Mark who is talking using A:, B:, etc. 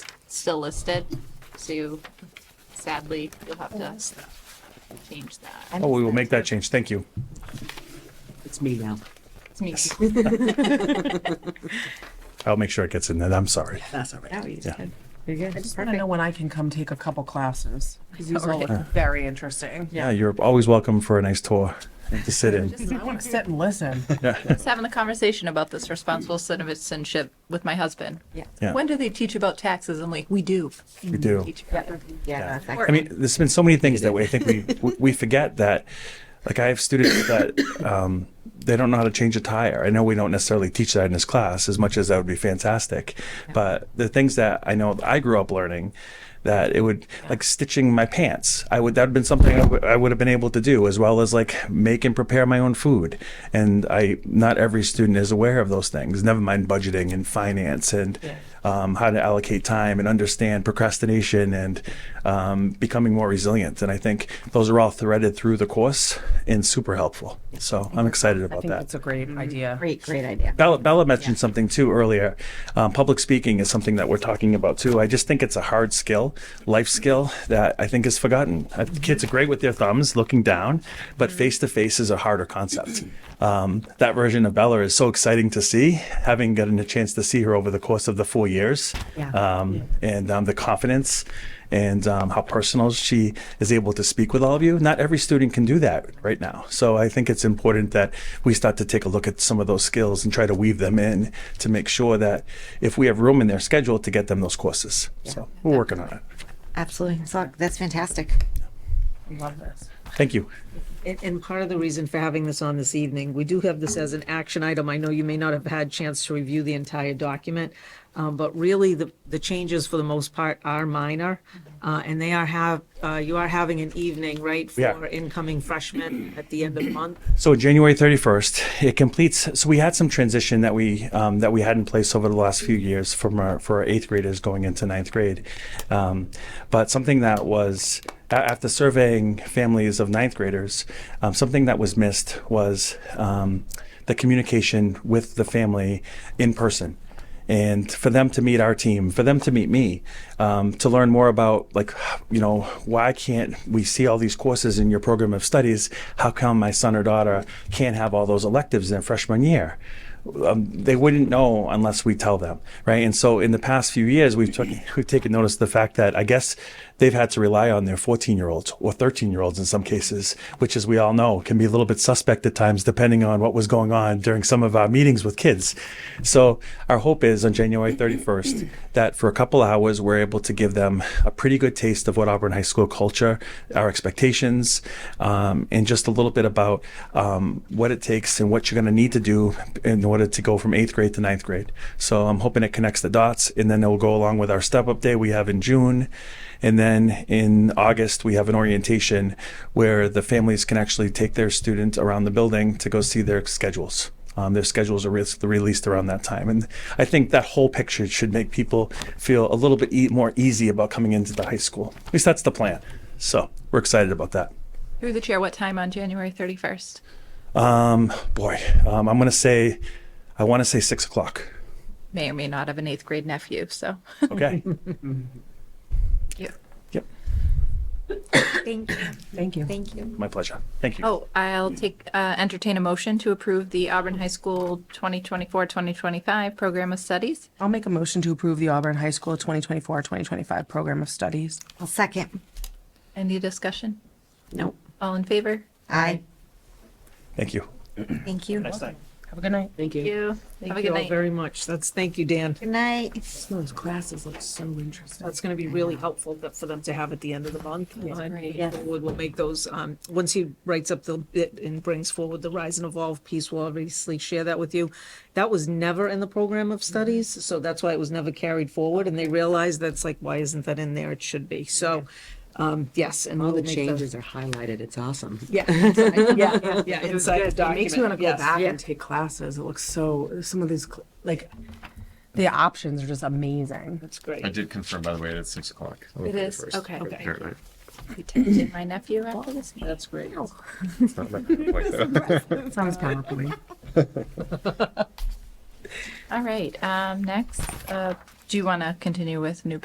A: still listed, so sadly, you'll have to change that.
B: Oh, we will make that change. Thank you.
C: It's me now.
A: It's me.
B: I'll make sure it gets in there. I'm sorry.
C: That's all right.
D: No, you
B: Yeah.
D: just good. You're good.
E: I just want to know when I can come take a couple classes because these all look very interesting.
B: Yeah, you're always welcome for a nice tour and to sit in.
E: I want to sit and listen.
A: was having a conversation about this responsible citizenship with my husband.
D: Yeah.
B: Yeah.
A: When do they teach about taxes? I'm like, we do.
B: We do.
A: Teach
D: Yeah.
A: Or-
D: exactly.
B: I mean, there's been so many things that we, I think we, we- we forget that, like I have students that, um, they don't know how to change a tire. I know we don't necessarily teach that in this class as much as that would be fantastic. But the things that I know that I grew up learning that it would like stitching my pants. I would, that would have been something I would- I would have been able to do as well as like make and prepare my own food. And I, not every student is aware of those things, never mind budgeting and finance and, um, how to allocate time and understand procrastination and um, becoming more resilient. And I think those are all threaded through the course and super helpful. So I'm excited
E: I
B: about
E: think
B: that.
E: that's a Mm-hmm. great idea.
D: Great, great idea.
B: Bella, Bella mentioned something too earlier. Um, public speaking is something that we're talking about too. I just think it's a hard skill, life skill that I think is forgotten. Uh, kids are great with their thumbs looking down, but face to face is a harder concept. Um, that version of Bella is so exciting to see, having gotten a chance to see her over the course of the four years
D: Yeah.
B: um, and um, the confidence and um, how personal she is able to speak with all of you. Not every student can do that right now. So I think it's important that we start to take a look at some of those skills and try to weave them in to make sure that if we have room in their schedule to get them those courses. So we're working on it.
D: Absolutely. So that's fantastic.
E: I love this.
B: Thank you.
F: And, and part of the reason for having this on this evening, we do have this as an action item. I know you may not have had chance to review the entire document, um, but really the, the changes for the most part are minor. Uh, and they are have, uh, you are having an evening, right?
B: Yeah.
F: For incoming freshmen at the end of the month.
B: So January 31st, it completes. So we had some transition that we um, that we had in place over the last few years from our for our eighth graders going into ninth grade, um, but something that was a- after surveying families of ninth graders, um, something that was missed was um, the communication with the family in person and for them to meet our team, for them to meet me, um, to learn more about like, you know, why can't we see all these courses in your program of studies? How come my son or daughter can't have all those electives in freshman year? Um, they wouldn't know unless we tell them, right? And so in the past few years, we've took, we've taken notice of the fact that I guess they've had to rely on their 14 year olds or 13 year olds in some cases, which as we all know can be a little bit suspect at times depending on what was going on during some of our meetings with kids. So our hope is on January 31st that for a couple hours we're able to give them a pretty good taste of what Auburn High School culture, our expectations, um, and just a little bit about um, what it takes and what you're going to need to do in order to go from eighth grade to ninth grade. So I'm hoping it connects the dots, and then it will go along with our step up day we have in June. And then in August, we have an orientation where the families can actually take their student around the building to go see their schedules. Um, their schedules are re- released around that time. And I think that whole picture should make people feel a little bit e- more easy about coming into the high school. At least that's the plan. So we're excited about that.
A: Through the chair, what time on January 31st?
B: Um, boy, um, I'm going to say, I want to say six o'clock.
A: May or may not have an eighth grade nephew, so.
B: Okay.
A: Yeah.
B: Yep.
D: Thank you.
E: Thank you.
D: Thank you.
B: My pleasure. Thank you.
A: Oh, I'll take, uh, entertain a motion to approve the Auburn High School 2024-2025 Program of Studies.
E: I'll make a motion to approve the Auburn High School 2024-2025 Program of Studies.
D: I'll second.
A: Any discussion?
D: Nope.
A: All in favor?
D: Aye.
B: Thank you.
D: Thank you. Good
E: Have a good night.
F: Thank
A: Thank you. Have a
F: Thank
A: good
F: you all
A: night.
F: very much. That's, thank you, Dan.
D: night.
E: Those classes look so interesting.
F: That's gonna be really helpful that- for them to have at the end of the month.
A: great.
F: Wood will make those, um, once he writes up the bit and brings forward the Rise and Evolve piece, we'll obviously share that with you. That was never in the program of studies, so that's why it was never carried forward, and they realized that's like, why isn't that in there? It should be, so, um, yes, and.
C: All the
F: we'll make
C: changes are highlighted. It's awesome.
F: Yeah, yeah, yeah, yeah, inside the
E: It
F: document.
E: makes me want to go
F: yes.
E: back
D: Yeah.
E: and take classes. It looks so, some of these, cl- like, the options are just amazing.
F: That's great.
G: I did confirm, by the way, that it's six o'clock. on the
A: It is,
G: 31st.
A: okay.
F: Okay.
G: All right.
A: We texted my nephew after this meeting.
F: That's great.
C: Oh,
G: It's not my point, though.
E: Sounds PowerPoint.
A: All right, um, next, uh, do you want to continue with new